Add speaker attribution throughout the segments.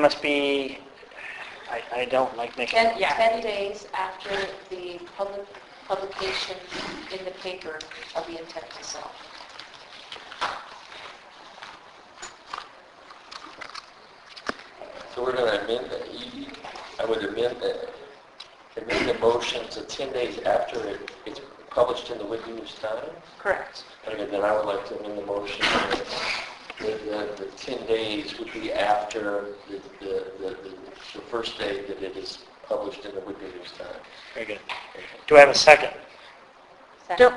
Speaker 1: must be, I, I don't like making,
Speaker 2: Ten,
Speaker 3: Yeah.
Speaker 2: ten days after the public, publication in the paper of the intent to sell.
Speaker 4: So we're going to amend the, you- I would amend the, amend the motion to 10 days after it- it's published in the Whitney News Times?
Speaker 3: Correct.
Speaker 4: And then I would like to amend the motion that that the the 10 days would be after the, the, the- the the first day that it is published in the Whitney News Times.
Speaker 1: very good. Do I have a second?
Speaker 5: Don't,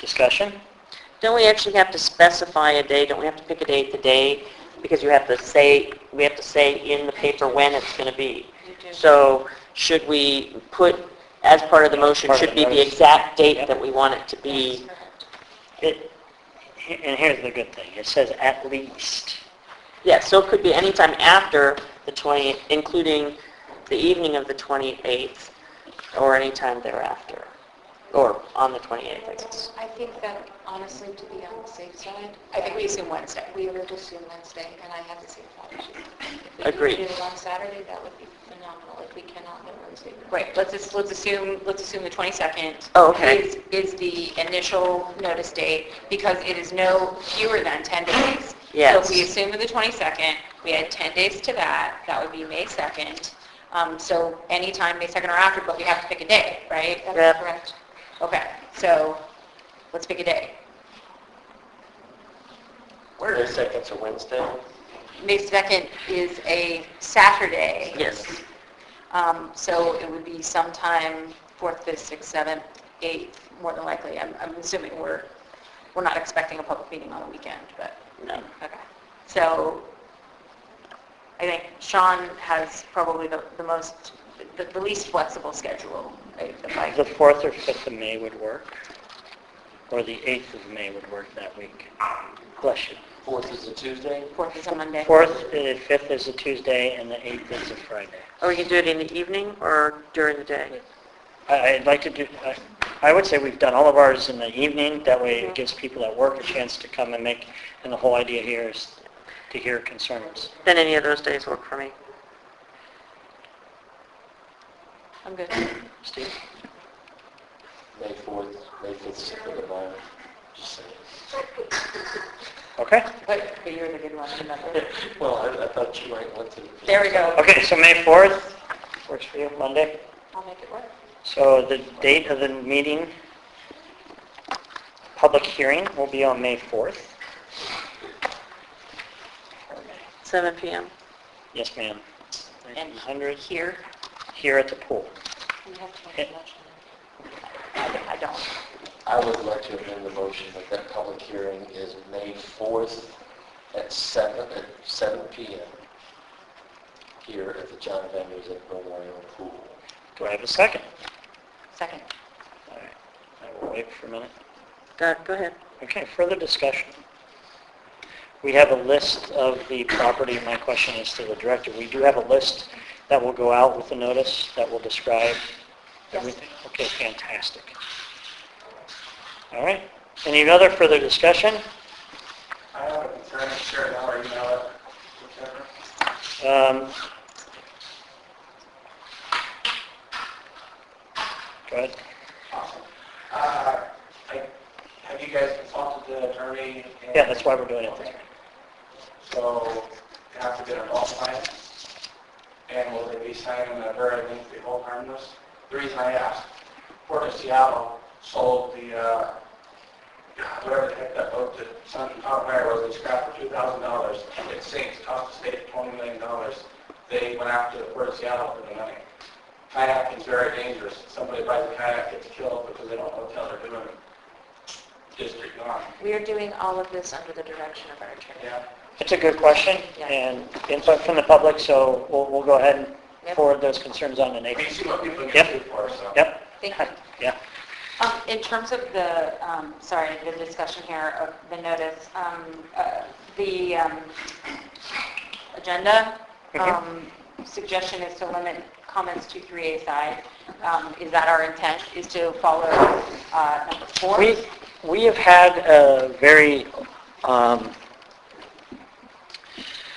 Speaker 1: Discussion?
Speaker 5: don't we actually have to specify a day? Don't we have to pick a date today? Because you have to say, we have to say in the paper when it's going to be.
Speaker 2: You do.
Speaker 5: So should we put, as part of the motion,
Speaker 1: Part of
Speaker 5: should
Speaker 1: the
Speaker 5: be the
Speaker 1: notice.
Speaker 5: exact date
Speaker 1: Yep.
Speaker 5: that we want it to be?
Speaker 1: It, he- and here's the good thing, it says at least.
Speaker 5: Yes, so it could be anytime after the 20th, including the evening of the 28th, or anytime thereafter, or on the 28th, I guess.
Speaker 2: I think that honestly, to be on the safe side. I think we assume Wednesday. We would assume Wednesday, and I have the same thought as you. If we
Speaker 5: Agreed.
Speaker 2: could do it on Saturday, that would be phenomenal. If we cannot, then Wednesday. would be-
Speaker 3: Right, let's just, let's assume, let's assume the 22nd.
Speaker 5: Oh, okay.
Speaker 3: is- Is the initial notice date, because it is no fewer than 10 days.
Speaker 5: Yes.
Speaker 3: So if we assume the 22nd, we add 10 days to that, that would be May 2nd. Um, So anytime May 2nd or after, but we have to pick a day, right?
Speaker 5: Yep.
Speaker 2: That's correct.
Speaker 3: Okay, so let's pick a day.
Speaker 4: May 2nd's a Wednesday?
Speaker 3: May 2nd is a Saturday.
Speaker 5: Yes.
Speaker 3: Um, So it would be sometime 4th, 5th, 6th, 7th, 8th, more than likely. I'm I'm assuming we're, we're not expecting a public meeting on a weekend, but, um,
Speaker 5: No.
Speaker 3: okay. So I think Sean has probably the the most, the the least flexible schedule, right? if I-
Speaker 1: The 4th or 5th of May would work, or the 8th of May would work that week. Bless you.
Speaker 4: 4th is a Tuesday?
Speaker 3: 4th is a Monday.
Speaker 1: 4th, and 5th is a Tuesday, and the 8th is a Friday.
Speaker 5: Or we can do it in the evening or during the day?
Speaker 1: I- I'd like to do, I- I would say we've done all of ours in the evening, that way it gives people at work a chance to come and make, and the whole idea here is to hear concerns.
Speaker 5: Then any of those days work for me.
Speaker 3: I'm good.
Speaker 1: Steve?
Speaker 4: May 4th, May 5th is the end of mine. Just saying.
Speaker 1: Okay?
Speaker 3: But but you're the good one, remember?
Speaker 4: Well, I I thought you might want to.
Speaker 3: There we go.
Speaker 1: Okay, so May 4th, works for you, Monday?
Speaker 2: I'll make it work.
Speaker 1: So the date of the meeting, public hearing, will be on May 4th.
Speaker 5: 7 PM.
Speaker 1: Yes, ma'am.
Speaker 3: And
Speaker 1: 100
Speaker 3: here,
Speaker 1: here at the pool.
Speaker 2: We have to make a
Speaker 1: Yeah.
Speaker 2: motion.
Speaker 3: I I don't.
Speaker 4: I would like to amend the motion that that public hearing is May 4th at 7, at 7 PM here at the John Van Nuysen Memorial Pool.
Speaker 1: Do I have a second?
Speaker 3: Second.
Speaker 1: All right, I will wait for a minute.
Speaker 5: Go go ahead.
Speaker 1: Okay, further discussion. We have a list of the property. My question is to the director. We do have a list that will go out with the notice that will describe everything. Okay, fantastic. All right. Any other further discussion?
Speaker 6: I have a concern, share it out or email it, whichever.
Speaker 1: Um, Go ahead.
Speaker 6: Awesome. Uh, I- Have you guys consulted the attorney? and-
Speaker 1: Yeah, that's why we're doing it this way.
Speaker 6: So, you have to get a fault line, and will they be signing a very lengthy hold harmless? The reason I asked, Port of Seattle sold the, uh, God, whatever the heck that boat that Sun Empire was, they scrapped for two thousand dollars, it sinks, cost the state twenty million dollars. They went after the Port of Seattle for the money. Kayak is very dangerous, somebody buys a kayak, gets killed because they don't know what the hell they're doing. District gone,
Speaker 2: We are doing all of this under the direction of our attorney.
Speaker 6: yeah.
Speaker 1: It's a good question
Speaker 2: Yeah.
Speaker 1: and input from the public, so we'll, we'll go ahead and
Speaker 2: Yep.
Speaker 1: forward those concerns on to
Speaker 6: I mean,
Speaker 1: Nathan.
Speaker 6: you see what people
Speaker 1: Yep.
Speaker 6: get sued for, so.
Speaker 1: Yep.
Speaker 3: Thank you.
Speaker 1: Yeah.
Speaker 3: Um, In terms of the, um, sorry, the discussion here of the notice, um, uh, the um, agenda um, suggestion is to limit comments to three A side. Um, Is that our intent, is to follow uh, number four?
Speaker 1: We, we have had a very um,